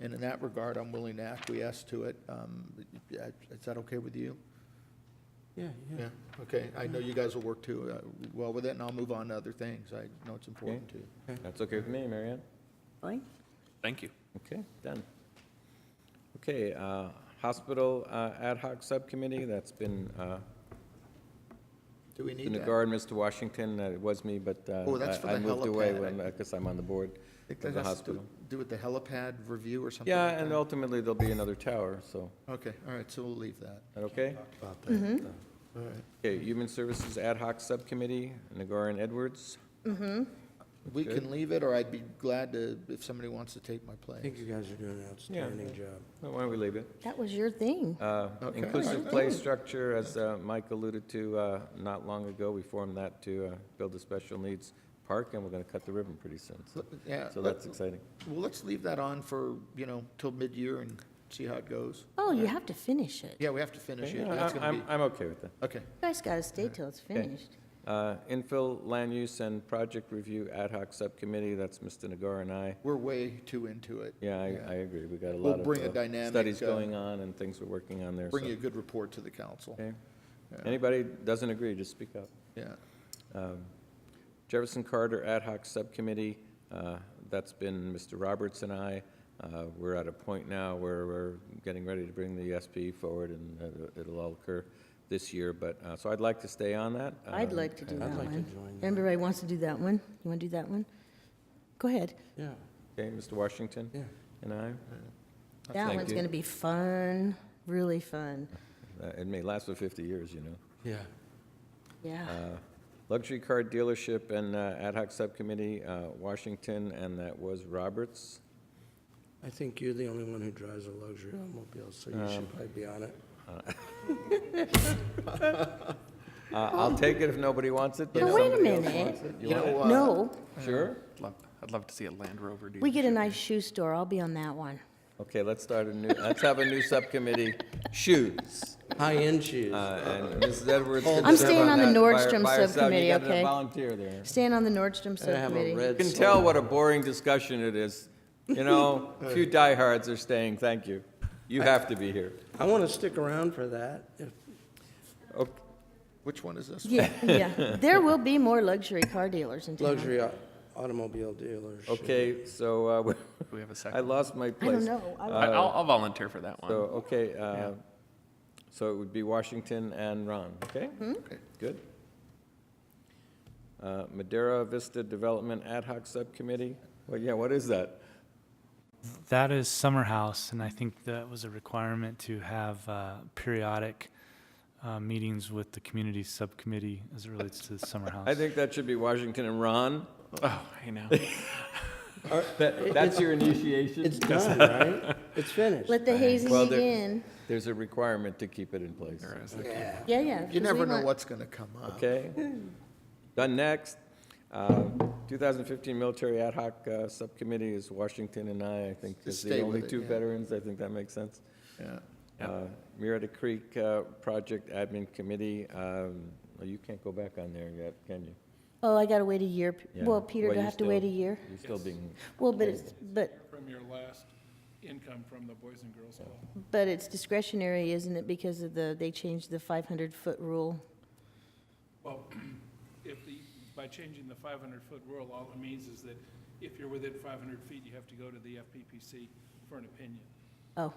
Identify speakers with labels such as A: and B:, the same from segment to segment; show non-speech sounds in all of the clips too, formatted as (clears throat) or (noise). A: And in that regard, I'm willing to acquiesce to it. Um, Is that okay with you?
B: Yeah, yeah.
A: Yeah, okay. I know you guys will work too, uh, well with it, and I'll move on to other things. I know it's important to you.
C: That's okay with me, Marianne.
D: Fine.
B: Thank you.
C: Okay, done. Okay, uh, Hospital uh, Ad Hoc Subcommittee, that's been, uh,
A: Do we
C: in
A: need that?
C: regard, Mr. Washington, uh, it was me, but uh,
A: Oh, that's for
C: I I
A: the
C: moved away
A: helipad.
C: because I'm on the board
A: I think
C: of
A: that
C: the
A: has to do-
C: hospital.
A: do with the helipad review or something?
C: Yeah,
A: like
C: and
A: that?
C: ultimately, there'll be another tower, so,
A: Okay, all right, so we'll leave that.
C: that okay?
D: Mm-hmm.
A: All right.
C: Okay, Human Services Ad Hoc Subcommittee, Nagar and Edwards.
A: We
C: Okay.
A: can leave it, or I'd be glad to, if somebody wants to take my
B: I
A: place.
B: think you guys are doing an outstanding job.
C: Oh, Why don't we leave it?
D: That was your thing.
C: Uh,
A: Okay.
C: Inclusive play structure, as uh, Mike alluded to uh, not long ago, we formed that to uh, build a special needs park, and we're going to cut the ribbon pretty soon. so-
A: Yeah,
C: So
A: let-
C: that's exciting.
A: well, let's leave that on for, you know, till mid-year and see how it goes.
D: Oh, you have to finish it. You
A: Yeah, we have to finish it.
C: Yeah,
A: That's
C: I-
A: gonna
C: I'm,
A: be,
C: I'm okay with that.
A: okay.
D: guys gotta stay till it's finished.
C: Uh, Infill Land Use and Project Review Ad Hoc Subcommittee, that's Mr. Nagar and I.
A: We're way too into it.
C: Yeah, I,
A: Yeah.
C: I agree. We've got a
A: We'll
C: lot of
A: bring a
C: uh,
A: dynamic,
C: studies
A: uh,
C: going on and things we're working on there.
A: Bring
C: so-
A: a good report to the council.
C: okay.
A: Yeah.
C: Anybody doesn't agree, just speak up.
A: Yeah.
C: Um, Jefferson Carter Ad Hoc Subcommittee, uh, that's been Mr. Roberts and I. Uh, We're at a point now where we're getting ready to bring the SP forward, and uh, it'll all occur this year, but, uh, so I'd like to stay on that.
D: I'd
C: Um,
D: like to do
C: and-
D: that
B: like to
D: one.
B: join that.
D: Everybody wants to do that one. You wanna do that one? Go ahead.
B: Yeah,
C: Okay, Mr. Washington
B: yeah.
C: and I.
D: That
C: Thank
D: one's
C: you.
D: gonna be fun, really fun.
C: Uh, It may last for 50 years, you know.
B: Yeah.
D: Yeah.
C: Uh, Luxury Car Dealership and uh, Ad Hoc Subcommittee, uh, Washington, and that was Roberts.
B: I think you're the only one who drives a luxury automobile, so you should probably be on it.
C: Uh, I'll take it if nobody wants it, but
D: Oh. Now,
C: if
D: wait a
C: somebody else
D: minute.
C: wants it.
A: You
C: want
A: know,
C: it?
A: uh,
D: No,
C: Sure?
E: Love, I'd love to see a Land Rover dealership.
D: we get a nice shoe store. I'll be on that one.
C: Okay, let's start a new, let's have a new subcommittee, shoes.
B: High-end shoes.
C: Uh, And Mrs. Edwards can
D: I'm
C: serve
D: staying on the
C: that by-
D: Nordstrom
C: by herself.
D: subcommittee,
C: You got
D: okay?
C: a volunteer there.
D: Stand on the Nordstrom
B: Gotta have a
D: subcommittee.
C: You
B: red
C: can
B: sole.
C: tell what a boring discussion it is. You know, few diehards are staying, thank you. You have to be here.
B: I want to stick around for that. If-
C: Okay.
A: Which one is this?
D: Yeah, yeah. There will be more luxury car dealers in town.
B: Luxury au- automobile dealers.
C: Okay, so, uh, (laughs) we-
E: Do we have a
C: I
E: second?
C: lost my
D: I don't
C: place.
D: know. I-
E: I- I'll, I'll volunteer for that
C: So,
E: one.
C: okay, uh, so it would be Washington and Ron, okay?
A: Okay.
C: Good. Uh, Madera Vista Development Ad Hoc Subcommittee, well, yeah, what is that?
F: That is summer house, and I think that was a requirement to have uh, periodic uh, meetings with the community subcommittee as it relates to the summer house.
C: I think that should be Washington and Ron.
E: Oh, I know.
C: (laughs) That- That's your initiation?
B: It's (laughs) done, right? It's finished.
D: Let the hazing
C: Well, there-
D: begin.
C: There's a requirement to keep it in place,
E: There is.
D: Yeah, yeah. 'cause
A: You
D: we
A: never know
D: want-
A: what's gonna come up.
C: okay? Done next. Um, 2015 Military Ad Hoc uh, Subcommittee is Washington and I, I think, is the
A: stay
C: only
A: with it,
C: two
A: yeah.
C: veterans, I think that makes sense.
A: Yeah.
C: Uh, Murrieta Creek uh, Project Admin Committee, um, well, you can't go back on there yet, can you?
D: Oh, I gotta wait a year.
C: Yeah.
D: Well, Peter,
C: Well,
D: do I
C: you
D: have to wait a
C: still-
D: year?
C: You're still being,
D: Well, but it's, but,
G: from your last income from the Boys and Girls Club.
D: but it's discretionary, isn't it, because of the, they changed the 500-foot rule?
G: Well, (clears throat) if the, by changing the 500-foot rule, all it means is that if you're within 500 feet, you have to go to the FPPC for an opinion.
D: Oh.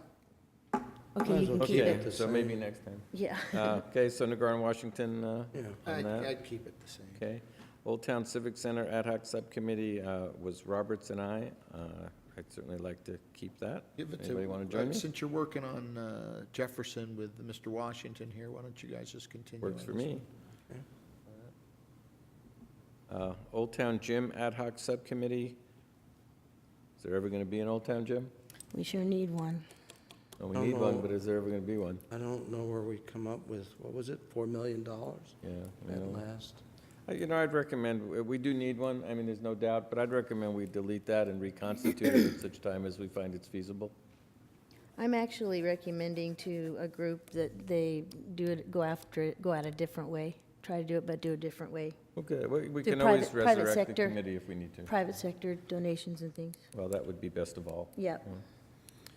B: Might
D: Okay, you
B: as
D: can
B: well
D: keep
B: keep
D: it.
C: okay,
B: it the
C: so
B: same.
C: maybe next time.
D: Yeah.
C: Uh, Okay, so Nagar and Washington uh,
B: Yeah.
C: on
A: I'd,
C: that,
A: I'd keep it the same.
C: okay. Old Town Civic Center Ad Hoc Subcommittee uh, was Roberts and I. Uh, I'd certainly like to keep that.
A: Give it to.
C: Anybody want to
A: uh,
C: join me?
A: Since you're working on uh, Jefferson with Mr. Washington here, why don't you guys just continue?
C: Works
A: on
C: for
A: this
C: me.
B: Okay.
C: Uh, Old Town Gym Ad Hoc Subcommittee. Is there ever going to be an Old Town Gym?
D: We sure need one.
C: Well, we
B: Don't
C: need one,
B: know.
C: but is there ever going to be one?
B: I don't know where we come up with, what was it, $4 million
C: Yeah. you
B: at
C: know.
B: last?
C: Uh, You know, I'd recommend, uh, we- we do need one, I mean, there's no doubt, but I'd recommend we delete that and reconstitute it at such time as we find it's feasible.
D: I'm actually recommending to a group that they do it, go after it, go out a different way. Try to do it, but do a different way.
C: Okay, we we
D: Do
C: can always
D: private- private
C: resurrect the
D: sector.
C: committee if we need to.
D: Private sector donations and things.
C: Well, that would be best of all.
D: Yep.